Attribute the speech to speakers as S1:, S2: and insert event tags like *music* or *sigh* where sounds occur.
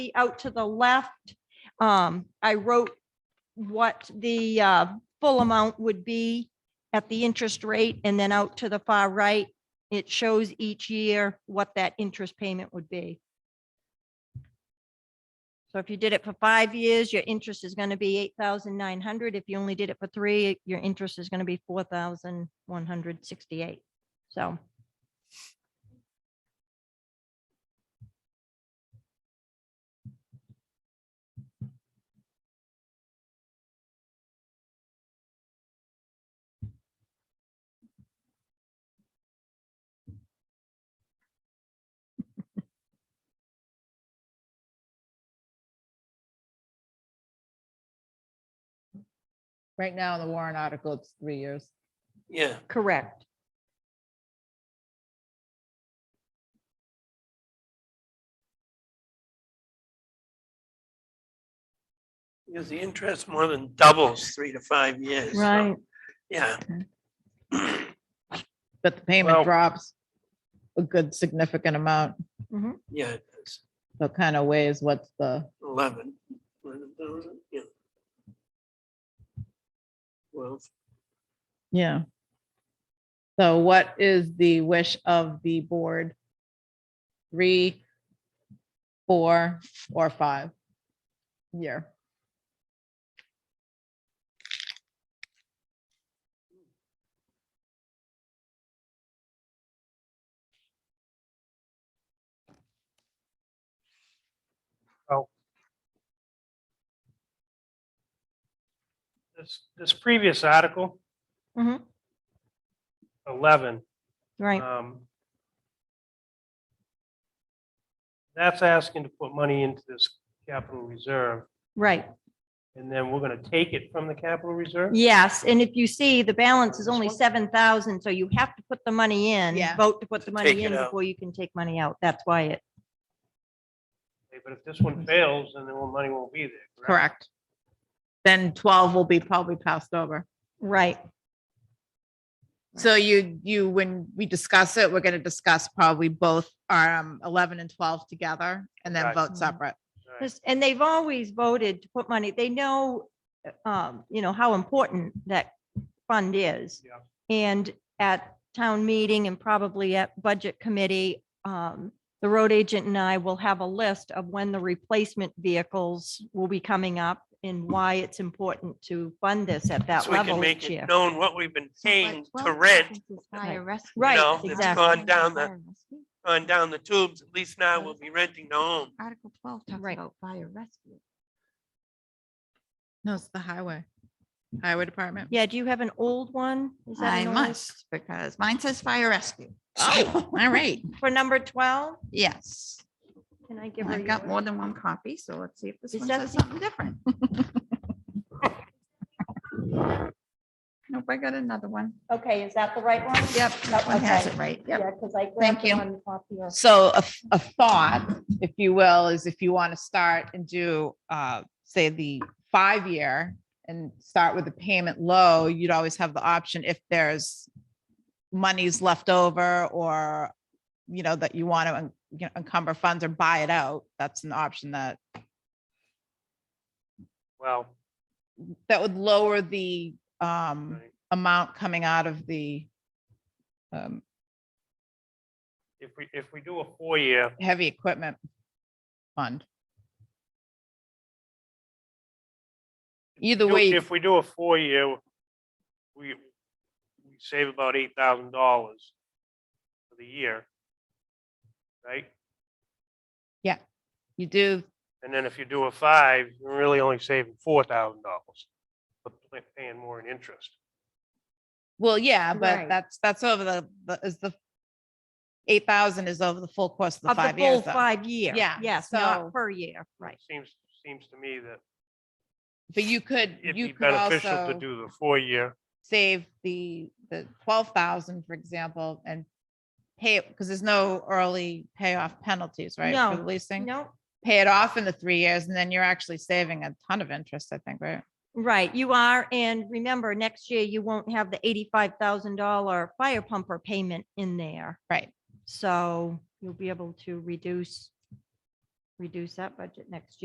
S1: out to the left, um, I wrote what the, uh, full amount would be at the interest rate and then out to the far right, it shows each year what that interest payment would be. So if you did it for five years, your interest is going to be eight thousand nine hundred. If you only did it for three, your interest is going to be four thousand one hundred sixty-eight. So.
S2: Right now, the Warren article, it's three years.
S3: Yeah,
S1: Correct.
S3: because the interest more than doubles three to five years. so, Yeah.
S2: But the
S3: Well-
S2: payment drops a good significant amount.
S3: Yeah, it's
S2: So it kind of weighs what's the,
S3: eleven. 11,000, yeah. Well,
S2: yeah. So what is the wish of the board? Three, four, or five? Year.
S4: this, this previous article,
S1: Mhm.
S4: eleven,
S1: Right,
S3: uh,
S4: um, that's asking to put money into this capital reserve,
S1: right.
S4: and then we're gonna take it from the capital reserve?
S1: Yes, and if you see, the balance is only
S4: This one?
S1: seven thousand, so you have to put the money in.
S2: Yeah.
S1: Vote to put the
S3: Take
S1: money
S3: it
S1: in
S3: out.
S1: before you can take money out. That's why it,
S4: Okay, But if this one fails, then the money won't be there.
S2: Correct. Then twelve will be probably passed over.
S1: right,
S2: So you, you, when we discuss it, we're gonna discuss probably both um eleven and twelve together and then
S4: Right.
S2: vote
S5: Hmm.
S1: Mhm.
S2: separate.
S4: All right.
S1: This- and they've always voted to put money, they know, uh, um, you know, how important that fund is.
S4: Yeah.
S1: And at town meeting and probably at budget committee, um, the road agent and I will have a list of when the replacement vehicles will be coming up and why it's important to fund this at that
S3: so we can
S1: level
S3: make
S1: each
S3: it
S1: year.
S3: known what we've been paying
S5: Like
S3: to
S5: 12
S3: rent
S5: cents is fire rescue.
S1: Right,
S3: know, it's
S1: exactly.
S3: gone down the-
S5: Fire rescue.
S3: on down the tubes. At least now we'll be renting the home.
S5: Article twelve talks
S1: Right.
S5: about fire rescue.
S2: No, it's the highway, highway department.
S1: Yeah, do you have an old one? Is that
S5: I
S1: an old-
S5: must, because mine says fire rescue. Oh, all right,
S1: For number twelve,
S5: yes.
S1: can I give her?
S5: I've got
S1: yours?
S5: more than one copy, so let's see if this
S1: Is
S5: one
S1: that
S5: says
S1: the-
S5: something different. Nope, I got another one.
S1: Okay, is that the right one?
S5: Yep, that one has
S1: Okay.
S5: it right, yep.
S1: Yeah, because I. grabbed
S5: Thank
S1: the
S5: you.
S1: one off your-
S2: *laughs* So a, f- a thought, if you will, is if you want to start and do, uh, say the five-year and start with the payment low, you'd always have the option if there's monies left over or, you know, that you want to, you know, encumber funds or buy it out. That's an option that,
S4: Well,
S2: that would lower the, um,
S4: right.
S2: amount coming out of the, um,
S4: if we, if we do a four-year,
S2: heavy equipment fund. Either
S4: do-
S2: way, you
S4: if we do a four-year, we, we save about eight thousand dollars for the year, right?
S2: You do,
S4: And then if you do a five, you're really only saving four thousand dollars, but pay- paying more in interest.
S2: well, yeah, but
S1: Right.
S2: that's, that's over the, the is the eight thousand is over the full course of the
S1: Of the
S2: five
S1: full
S2: years. though.
S1: five year.
S2: Yeah,
S1: Yes, not
S2: so-
S1: per year, right.
S4: Seems, seems to me that
S2: But you could,
S4: it'd be
S2: you could
S4: beneficial to
S2: also
S4: do the four-year.
S2: save the, the twelve thousand, for example, and pay it, because there's no early payoff penalties, right? for the
S1: No,
S2: Leasing,
S1: No,
S2: pay it off in the three years and then you're actually saving a ton of interest, I think, right?
S1: right, you are, and remember, next year you won't have the eighty-five thousand dollar fire pumper payment in there.
S2: Right.
S1: So you'll be able to reduce reduce that budget next year.